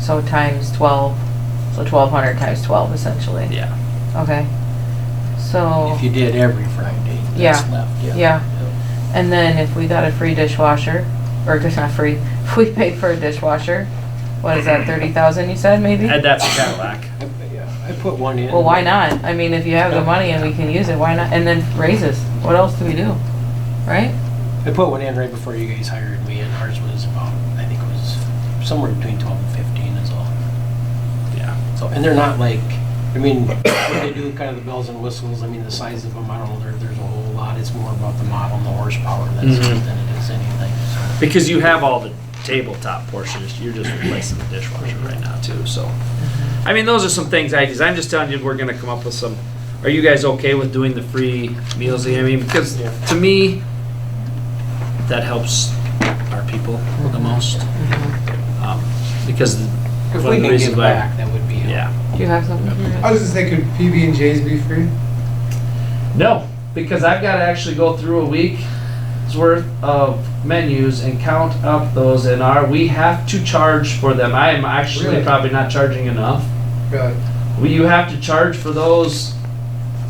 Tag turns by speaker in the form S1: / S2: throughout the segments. S1: so times twelve, so twelve hundred times twelve essentially.
S2: Yeah.
S1: Okay. So,
S3: If you did every Friday, that's
S1: Yeah.
S3: left, yeah.
S1: Yeah. and then if we got a free dishwasher, or just not free, if we paid for a dishwasher, what is that, thirty thousand you said maybe?
S2: And that's a Cadillac.
S3: I- yeah, I put one in.
S1: Well, why not? I mean, if you have the money and we can use it, why not? And then raises, what else do we do? Right?
S3: I put one in right before you guys hired me, and ours was about, I think it was somewhere between 12 and 15 is all.
S2: Yeah.
S3: So, and they're not like, I mean, when they do kind of the bells and whistles, I mean, the size of them, I don't know, there, there's a whole lot. It's more about the model and the horsepower that's,
S2: Mhm.
S3: than it is anything, so.
S2: Because you have all the tabletop portions, you're just replacing the dishwasher right now too, so.
S3: Mm-hmm.
S2: I mean, those are some things I just, I'm just telling you, we're gonna come up with some, are you guys okay with doing the free meals? I mean, because
S3: Yeah.
S2: to me, that helps our people the most. Um, Because
S3: Mm-hmm. If
S2: one of the
S3: we can give
S2: reasons why-
S3: back, that would be. a-
S2: Yeah.
S1: Do you have something?
S4: I was just thinking, PB and J's be free.
S2: No, because I've got to actually go through a week's worth of menus and count up those in our, we have to charge for them. I am actually
S4: Really?
S2: probably not charging enough.
S4: Got it.
S2: We, you have to charge for those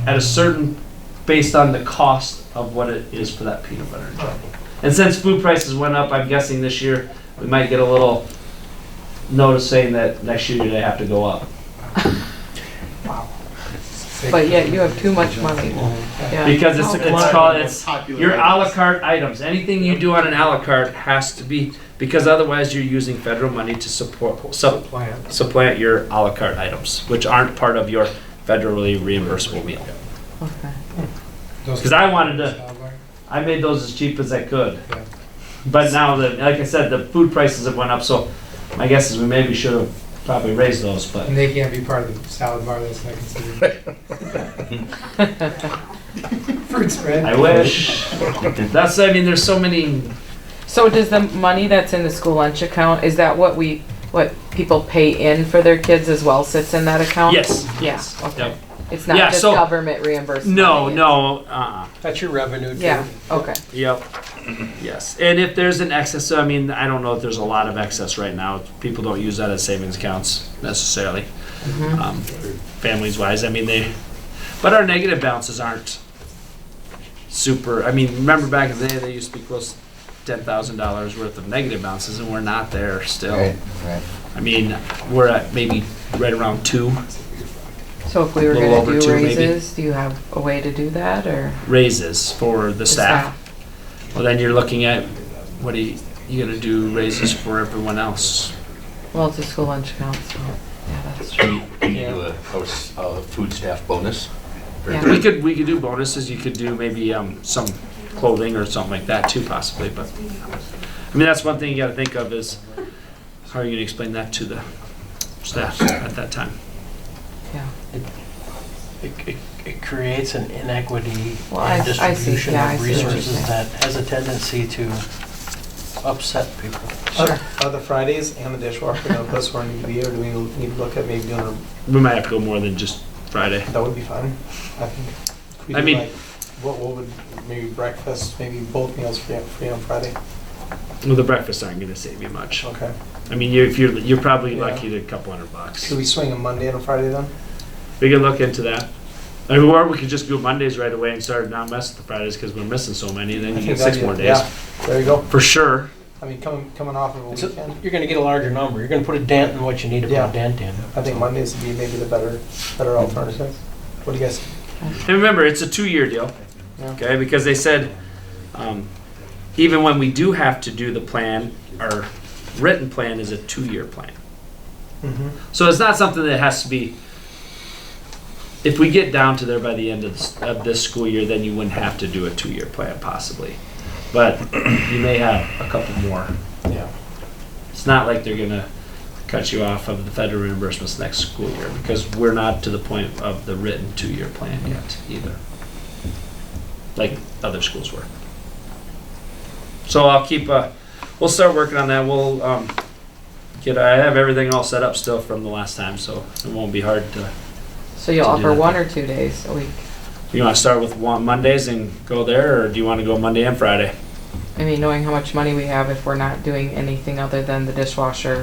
S2: at a certain, based on the cost of what it is for that peanut butter and jelly. And since food prices went up, I'm guessing this year, we might get a little notice saying that next year they have to go up.
S1: But yet you have too much money. Yeah.
S2: Because it's, it's called, it's, your à la carte items, anything you do on an à la carte has to be, because otherwise you're using federal money to support, sup-
S4: Plan.
S2: supplant your à la carte items, which aren't part of your federally reimbursable meal.
S1: Okay.
S2: Because I wanted to, I made those as cheap as I could.
S4: Yeah.
S2: But now, the- like I said, the food prices have went up, so my guess is we maybe should have probably raised those, but.
S4: And they can't be part of the salad bar that's not considered. Fruit spread.
S2: I wish. That's, I mean, there's so many,
S1: So does the money that's in the school lunch account, is that what we, what people pay in for their kids as well sits in that account?
S2: yes,
S1: Yeah,
S2: yes.
S1: okay.
S2: yep.
S1: It's not
S2: Yeah,
S1: just
S2: so-
S1: government reimbursement?
S2: No,
S1: money,
S2: no, uh-uh.
S3: That's your revenue
S1: it's-
S3: too.
S1: Yeah, okay.
S2: Yep. Yes, and if there's an excess, so I mean, I don't know if there's a lot of excess right now. People don't use that as savings accounts necessarily,
S5: Mm-hmm.
S2: um, families wise. I mean, they, but our negative balances aren't super. I mean, remember back in the day, they used to be close ten thousand dollars worth of negative balances, and we're not there still.
S5: Right, right.
S2: I mean, we're at maybe right around two
S1: So if we were
S2: Little
S1: gonna
S2: over
S1: do
S2: two, maybe.
S1: raises, do you have a way to do that or?
S2: raises for the staff. Well, then you're looking at what are you, you gonna do raises for everyone else?
S1: Well, it's a school lunch account, so, yeah, that's true.
S5: Can you- can you do a, house- a food staff bonus? Or-
S1: Yeah.
S2: We could, we could do bonuses, you could do maybe, um, some clothing or something like that too possibly, but, I mean, that's one thing you gotta think of is, how are you gonna explain that to the staff at that time?
S3: It, it, it creates an inequity
S1: Well, I- I
S3: in
S1: see.
S3: distribution
S1: Yeah, I
S3: of
S1: see what you're
S3: resources
S1: saying.
S3: that has a tendency to upset people.
S1: Sure.
S6: Other Fridays and the dishwasher, now plus one need to be, or do we need to look at maybe doing, a-
S2: We might have to go more than just Friday.
S6: that would be fun, I think. If we
S2: I
S6: did,
S2: mean-
S6: like, What, what would, maybe breakfast, maybe both meals free, free on Friday,
S2: Well, the breakfasts aren't gonna save you much.
S6: okay.
S2: I mean, you, if you're, you're probably
S6: Yeah.
S2: lucky to a couple hundred bucks.
S6: Could we swing a Monday and a Friday then?
S2: We could look into that. I mean, Or we could just do Mondays right away and start not messing with the Fridays, cause we're missing so many, and then
S6: I
S2: you get
S6: think
S2: six
S6: that'd
S2: more
S6: be-
S2: days,
S6: Yeah, there you go,
S2: for sure.
S6: I mean, coming, coming off of a
S3: It's a-
S6: weekend,
S3: You're gonna get a larger number. You're gonna put a dent in what you need to put
S6: Yeah.
S3: a dent in.
S6: I think Mondays would be maybe the better, better alternative. What do you guys,
S2: And remember, it's a two-year deal,
S6: Yeah.
S2: okay? Because they said, um, even when we do have to do the plan, our written plan is a two-year plan.
S6: mm-hmm,
S2: So it's not something that has to be, if we get down to there by the end of this, of this school year, then you wouldn't have to do a two-year plan possibly. But you may have a couple more.
S6: yeah.
S2: It's not like they're gonna cut you off of the federal reimbursements next school year because we're not to the point of the written two-year plan yet either. Like other schools were. So I'll keep, uh, we'll start working on that. We'll, um, get, I have everything all set up still from the last time, so it won't be hard to,
S1: So you'll
S2: To do
S1: offer
S2: that.
S1: one or two days a week?
S2: you wanna start with one Mondays and go there, or do you wanna go Monday and Friday?
S1: I mean, knowing how much money we have if we're not doing anything other than the dishwasher